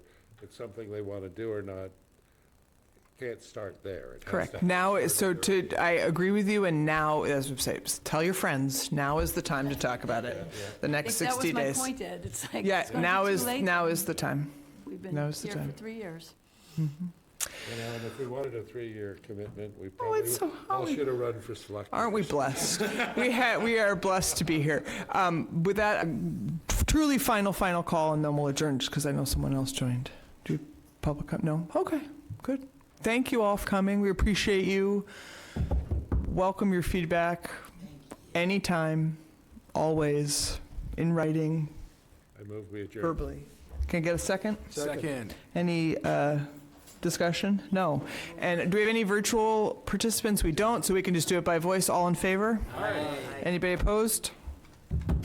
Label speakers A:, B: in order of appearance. A: it's something they want to do or not, can't start there. It has
B: Correct.
A: to-
B: Now, is- so to, I agree with you, and now, as we say, s- tell your friends, now is the time to talk about it, the next 60
C: That was
B: days.
C: my point, Ed. It's like,
B: Yeah,
C: it's gonna be
B: now
C: too
B: is,
C: late.
B: now is the time.
C: We've
B: now
C: been
B: is the
C: here for
B: time.
C: three years.
A: You know, and if we wanted a three-year commitment, we probably
B: Oh, it's so
A: all
B: hard.
A: should have run for select.
B: Aren't we blessed? We ha, we are blessed to be here. Um, With that, um, truly final, final call, and then we'll adjourn, just because I know someone else joined. Do you public, com- no? Okay, good. Thank you all for coming, we appreciate you. Welcome your feedback, anytime, always, in writing,
A: I move we adjourn.
B: verbally. Can I get a second?
D: Second.
B: Any uh, discussion? No. And do we have any virtual participants? We don't, so we can just do it by voice. All in favor? Anybody opposed?